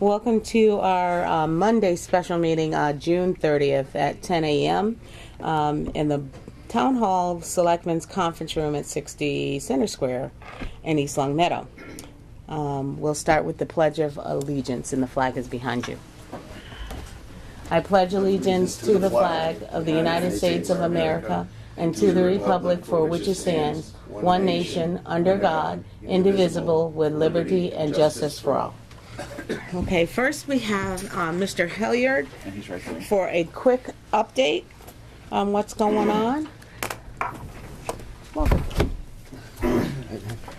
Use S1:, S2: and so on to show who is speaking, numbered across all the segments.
S1: Welcome to our uh, Monday special meeting, uh, June 30th at 10 a.m. um, in the Town Hall Selectmen's Conference Room at 60 Center Square in East Long Meadow. Um, We'll start with the Pledge of Allegiance, and the flag is behind you. I pledge allegiance to the flag of the United States of America and to the republic for which it stands, one nation, under God, indivisible, with liberty and justice for all. Okay, first we have uh, Mr. Hilliard
S2: And he's right there.
S1: for a quick update on what's going on. Welcome.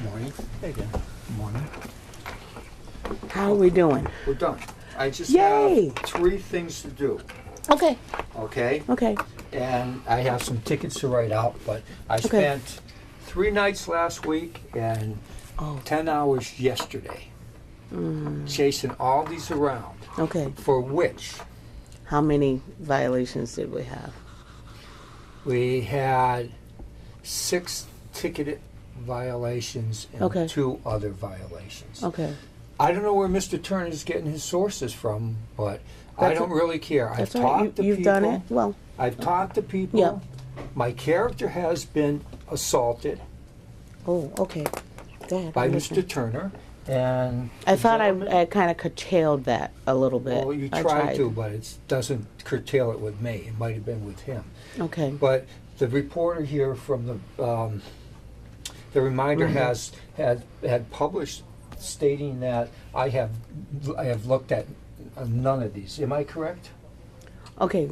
S3: Morning. Hey, Dan. Morning.
S1: How are we doing?
S3: We're done. I just
S1: Yay.
S3: have three things to do,
S1: Okay,
S3: okay?
S1: okay.
S3: And I have some tickets to write out, but I spent three nights last week and
S1: Oh. Mm.
S3: 10 hours yesterday chasing all these around,
S1: Okay,
S3: for which
S1: how many violations did we have?
S3: we had six ticketed violations and
S1: Okay. Oh.
S3: two other violations.
S1: Okay,
S3: I don't know where Mr. Turner's getting his sources from, but I
S1: That's
S3: don't
S1: a-
S3: really care. I've
S1: that's all right,
S3: talked to
S1: You- you've
S3: people.
S1: done it, well,
S3: I've talked to people.
S1: Yeah.
S3: My character has been assaulted
S1: oh, okay. Go ahead,
S3: by
S1: I'm
S3: Mr.
S1: listening.
S3: Turner, and
S1: I thought I, I kinda curtailed that a little bit.
S3: well, you
S1: I
S3: tried, to, but it doesn't curtail it with me. It might have been with him.
S1: Okay,
S3: But the reporter here from the um, the reminder
S1: Mm-hmm.
S3: has had had published stating that I have I have looked at none of these. Am I correct?
S1: okay,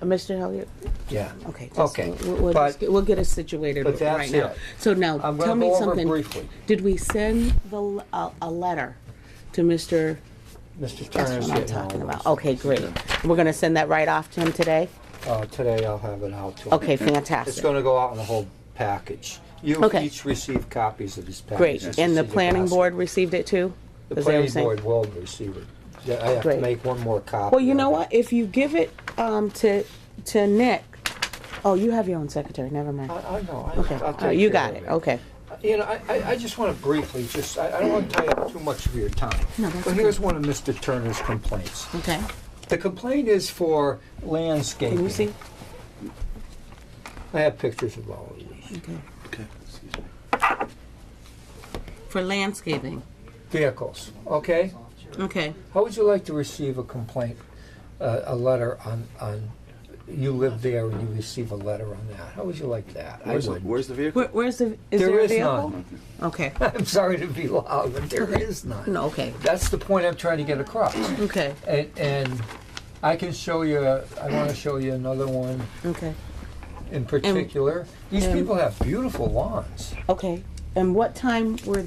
S1: Mr. Hilliard,
S3: Yeah.
S1: okay. that's-
S3: Okay,
S1: We'll, we'll
S3: but-
S1: just get- we'll get it situated
S3: but
S1: right
S3: that's
S1: now.
S3: it.
S1: So now,
S3: I'm
S1: tell
S3: going to
S1: me
S3: go over
S1: something.
S3: briefly.
S1: Did we send the, l- a, a letter to Mr.?
S3: Mr.
S1: That's
S3: Turner's
S1: what I'm
S3: getting all
S1: talking
S3: those.
S1: about. Okay, great. We're gonna send that right off to him today?
S3: Uh, today I'll have it out to him.
S1: Okay,
S3: It's
S1: fantastic.
S3: gonna go out in the whole package. You
S1: Okay.
S3: each receive copies of this package.
S1: Great. And the planning board received it too? Is that
S3: The
S1: what I'm
S3: planning
S1: saying?
S3: board will receive it. Yeah, I have
S1: Great.
S3: to make one more copy.
S1: Well, you
S3: of
S1: know
S3: it.
S1: what? If you give it, um, to, to Nick, oh, you have your own secretary, never mind.
S3: I, I know. I-
S1: Okay,
S3: I'll
S1: all
S3: take
S1: right, you
S3: care
S1: got
S3: of
S1: it, okay.
S3: You know, I, I- I just want to briefly, just, I I don't want to tie up too much of your time.
S1: No, that's
S3: But here's one of Mr. Turner's complaints.
S1: Okay.
S3: The complaint is for
S1: Can you
S3: landscaping.
S1: see?
S3: I have pictures of all of these.
S1: Okay.
S2: Okay, excuse me.
S1: For landscaping,
S3: Vehicles, okay?
S1: okay.
S3: How would you like to receive a complaint, uh, a letter on, on, you live there and you receive a letter on that? How would you like that? I
S2: Where's the,
S3: would.
S2: where's the vehicle?
S1: Where, where's the, is
S3: There
S1: there a
S3: is
S1: vehicle?
S3: none.
S1: Okay,
S3: I'm sorry to be loud, but there is none.
S1: no, okay,
S3: That's the point I'm trying to get across.
S1: okay,
S3: And, and I can show you, I want to show you another one
S1: okay,
S3: in particular. These
S1: and-
S3: people have beautiful lawns.
S1: okay. And what time were,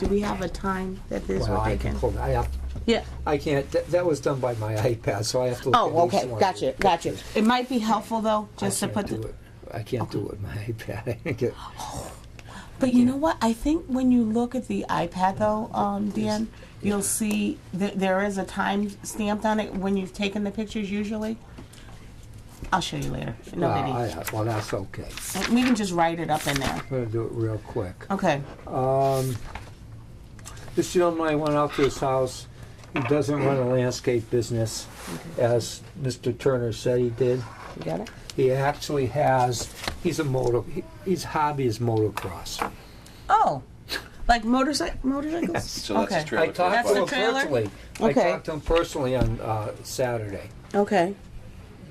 S1: do we have a time that this would
S3: Well, I
S1: take
S3: can
S1: in?
S3: pull, I have,
S1: Yeah,
S3: I can't, that, that was done by my iPad, so I have to look at
S1: oh,
S3: each
S1: okay,
S3: one.
S1: gotcha, gotcha. It might be helpful though,
S3: I
S1: just to
S3: can't
S1: put
S3: do
S1: the,
S3: it. I can't do it with my iPad. I think it-
S1: But you know what? I think when you look at the iPad though, um, Dan, you'll see that there is a time stamped on it when you've taken the pictures usually. I'll show you later. No
S3: Well,
S1: biggie.
S3: Ah, I- Well, that's okay.
S1: We can just write it up in there.
S3: I'm gonna do it real quick.
S1: Okay.
S3: Um, this gentleman, I went out to his house. He doesn't run a landscape business, as Mr. Turner said he did.
S1: You got it?
S3: He actually has, he's a moto, he- his hobby is motocross.
S1: Oh. Like motorcycle motorcycles?
S2: So that's his
S1: okay.
S2: trailer.
S3: I talked
S2: for
S3: to
S2: the
S3: him
S1: That's a trailer?
S3: personally. I
S1: Okay.
S3: talked to him personally on uh, Saturday.
S1: Okay.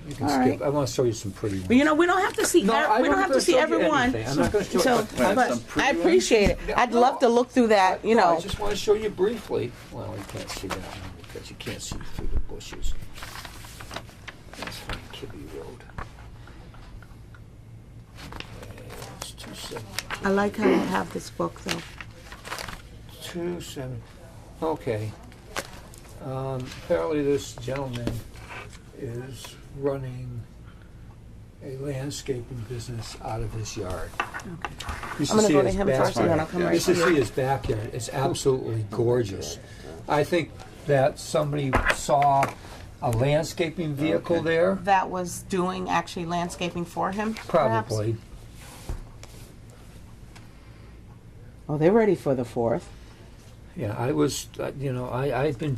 S3: You can
S1: All
S3: skip.
S1: right.
S3: I want to show you some pretty ones.
S1: But you know, we don't have to see
S3: No,
S1: ev-
S3: I
S1: we don't
S3: don't
S1: have
S3: gonna
S1: to see
S3: show you
S1: everyone.
S3: anything. I'm not gonna show
S1: so
S3: you- But I
S2: have
S1: but
S2: some pretty
S1: I
S2: ones.
S1: appreciate it. I'd
S3: No.
S1: love to look through that, you
S3: No,
S1: know.
S3: I just want to show you briefly. Well, you can't see that one because you can't see through the bushes. That's from Kibbe Road. It's two seven,
S1: I like how you have this book though.
S3: two seven, okay. Um, apparently this gentleman is running a landscaping business out of his yard. You should
S1: I'm gonna
S3: see
S1: go to
S3: his
S1: him first and
S3: backyard.
S1: then I'll come
S2: Yeah,
S1: right
S3: You
S1: to
S3: should see
S1: you.
S3: his backyard. It's absolutely gorgeous. I think that somebody saw a landscaping vehicle there,
S1: that was doing actually landscaping for him? perhaps?
S3: probably.
S1: Oh, they're ready for the fourth.
S3: Yeah, I was, uh, you know, I, I've been